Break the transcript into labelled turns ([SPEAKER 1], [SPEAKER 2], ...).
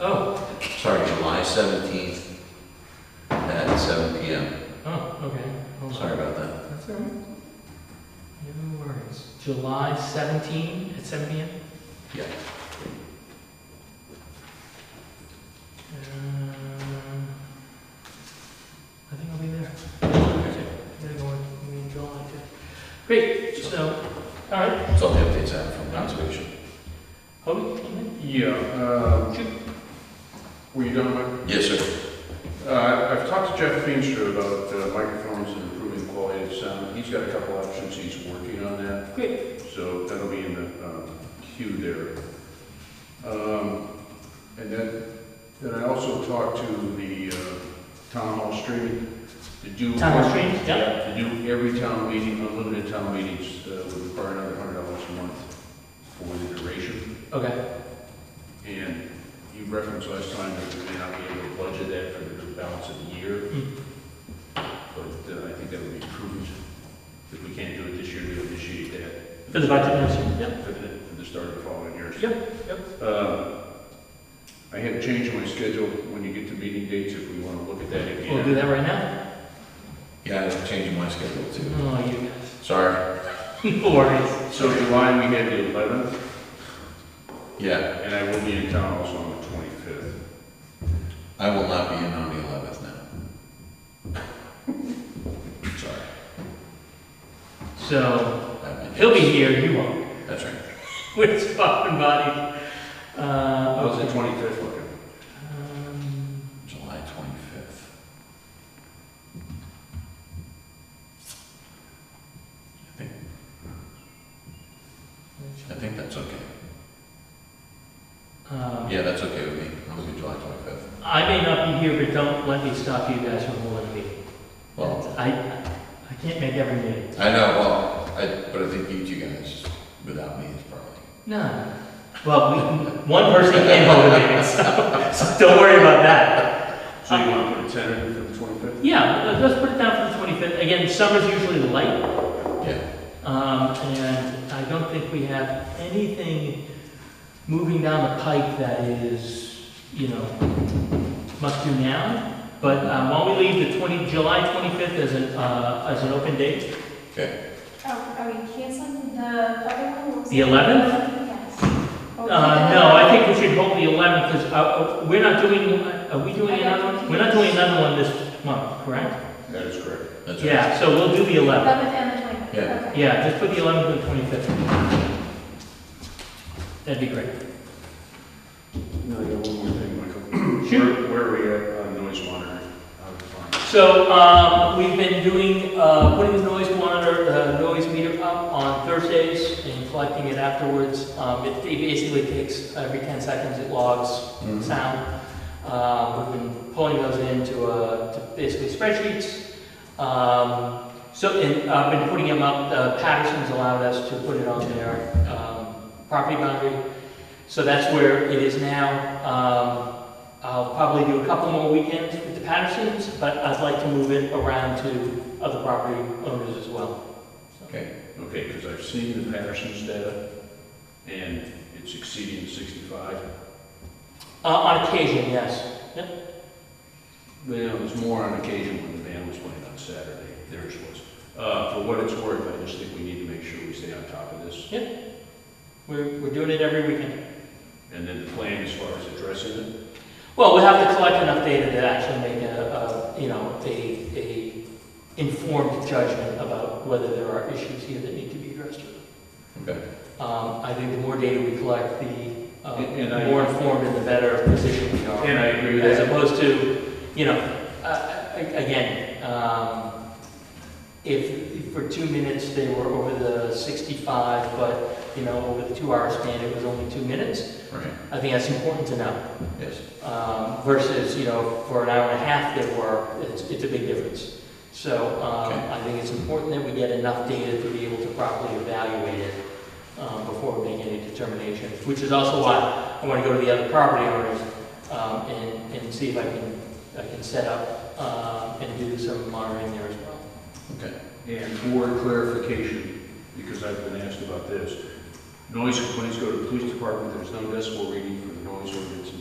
[SPEAKER 1] Oh,
[SPEAKER 2] sorry, July seventeenth at seven P M.
[SPEAKER 1] oh, okay. Hold on.
[SPEAKER 2] Sorry about that.
[SPEAKER 3] That's all right.
[SPEAKER 1] No worries. July 17 at 7 p.m.
[SPEAKER 2] Yeah.
[SPEAKER 1] Uh, Um, I think I'll be there. I'm gonna go in, in July too. Great. So, all right.
[SPEAKER 2] That's all the updates I have from conservation.
[SPEAKER 1] Hold it. hold
[SPEAKER 3] Yeah, uh, were you done, Mike?
[SPEAKER 2] Yes, sir.
[SPEAKER 3] Uh, I- I've talked to Jeff Feenstra about uh, microphones and improving quality of sound. He's got a couple options, he's working on that.
[SPEAKER 1] it. Great.
[SPEAKER 3] So that'll be in the um, queue there. Um, And then, then I also talked to the uh, town hall streaming to do.
[SPEAKER 1] Town hall streaming, yeah.
[SPEAKER 3] To do every town meeting, unlimited town meetings, uh, would require another hundred dollars a month for the duration.
[SPEAKER 1] Okay.
[SPEAKER 3] And you referenced last time that we may not be able to budget that for the balance of the year.
[SPEAKER 1] Mm.
[SPEAKER 3] But uh, I think that would be prudent. If we can't do it this year, we initiate that.
[SPEAKER 1] For the budget next year. Yep.
[SPEAKER 3] For the, for the start of the following years.
[SPEAKER 1] Yep,
[SPEAKER 3] Uh, I had to change my schedule when you get to meeting dates if we want to look at that again.
[SPEAKER 1] We'll do that right now.
[SPEAKER 2] Yeah, I was changing my schedule too.
[SPEAKER 1] Oh, you guys.
[SPEAKER 2] Sorry.
[SPEAKER 1] No worries.
[SPEAKER 3] So July, we had the eleventh,
[SPEAKER 2] Yeah,
[SPEAKER 3] and I will be in town also on the twenty-fifth.
[SPEAKER 2] I will not be in on the eleventh now. Sorry.
[SPEAKER 1] So,
[SPEAKER 2] I have my
[SPEAKER 1] he'll be
[SPEAKER 2] dates.
[SPEAKER 1] here, you won't.
[SPEAKER 2] That's right.
[SPEAKER 1] We're fucking body. Uh,
[SPEAKER 3] How's the
[SPEAKER 1] okay.
[SPEAKER 3] twenty-fifth looking?
[SPEAKER 1] Um,
[SPEAKER 2] July twenty-fifth. I think, I think that's okay.
[SPEAKER 1] um,
[SPEAKER 2] Yeah, that's okay with me. I'm good July twenty-fifth.
[SPEAKER 1] I may not be here, but don't let me stop you guys from holding a meeting.
[SPEAKER 2] Well,
[SPEAKER 1] I, I can't make every meeting.
[SPEAKER 2] I know, well, I, but I think you two guys, without me, is probably.
[SPEAKER 1] No. Well, we, one person can hold a meeting, so, so don't worry about that.
[SPEAKER 3] So you want to put a tentative for the twenty-fifth?
[SPEAKER 1] Yeah, let- let's put it down for the twenty-fifth. Again, summer's usually light,
[SPEAKER 2] Yeah,
[SPEAKER 1] um, and I don't think we have anything moving down the pike that is, you know, must do now. But, um, while we leave the twenty, July twenty-fifth as an, uh, as an open date,
[SPEAKER 2] okay.
[SPEAKER 4] Oh, are we canceling the other one? What was
[SPEAKER 1] The
[SPEAKER 4] it?
[SPEAKER 1] 11th?
[SPEAKER 4] Yes. Oh,
[SPEAKER 1] uh, no, I think we should hold the eleventh, because, uh, uh, we're not doing, are we doing
[SPEAKER 4] I got
[SPEAKER 1] another one?
[SPEAKER 4] confused.
[SPEAKER 1] We're not doing another one this month, correct?
[SPEAKER 3] That is correct.
[SPEAKER 2] That's right.
[SPEAKER 1] Yeah, so we'll do the 11th.
[SPEAKER 4] 11th and the 25th.
[SPEAKER 2] Yeah.
[SPEAKER 4] Okay.
[SPEAKER 1] Yeah, just put the 11th and the 25th. That'd be great.
[SPEAKER 3] No, I got one more thing, Michael.
[SPEAKER 1] Shoot.
[SPEAKER 3] Where- Where are we at on noise monitoring? How we find?
[SPEAKER 1] So, um, we've been doing, uh, putting the noise monitor, uh, noise meter up on Thursdays and collecting it afterwards. Um, it it basically takes, every 10 seconds it logs
[SPEAKER 2] Mhm.
[SPEAKER 1] sound. Um, we've been pulling those into, uh, to basically spreadsheets. Um, so, and I've been putting them up, uh, Patterson's allowed us to put it on their, um, property boundary. So that's where it is now. Um, I'll probably do a couple more weekends with the Pattersons, but I'd like to move it around to other property owners as well. So-
[SPEAKER 2] Okay,
[SPEAKER 3] Okay, because I've seen the Patterson's data, and it's exceeding sixty-five.
[SPEAKER 1] Uh, on occasion, yes.
[SPEAKER 3] Well, it was more on occasion when the band was playing on Saturday, theirs was. Uh, for what it's worth, I just think we need to make sure we stay on top of this.
[SPEAKER 1] We're, we're doing it every weekend.
[SPEAKER 3] And then the plan as far as addressing it,
[SPEAKER 1] Well, we'll have to collect enough data to actually make a, a, you know, a, a informed judgment about whether there are issues here that need to be addressed.
[SPEAKER 2] okay.
[SPEAKER 1] Um, I think the more data we collect, the, uh,
[SPEAKER 3] And- and I-
[SPEAKER 1] more informed and the better position we are.
[SPEAKER 3] and I agree with
[SPEAKER 1] As
[SPEAKER 3] that.
[SPEAKER 1] opposed to, you know, uh, again, um, if for two minutes they were over the 65, but, you know, over the two-hour span, it was only two minutes,
[SPEAKER 2] Right,
[SPEAKER 1] I think that's important to know.
[SPEAKER 2] yes.
[SPEAKER 1] Um, Versus, you know, for an hour and a half they were, it's, it's a big difference. So um,
[SPEAKER 2] Okay.
[SPEAKER 1] I think it's important that we get enough data to be able to properly evaluate it um, before we make any determinations, which is also why I want to go to the other property owners um, and, and see if I can, I can set up um, and do some monitoring there as well.
[SPEAKER 3] And for clarification, because I've been asked about this, noise complaints go to the police department, there's no decibel reading for the noise ordinance in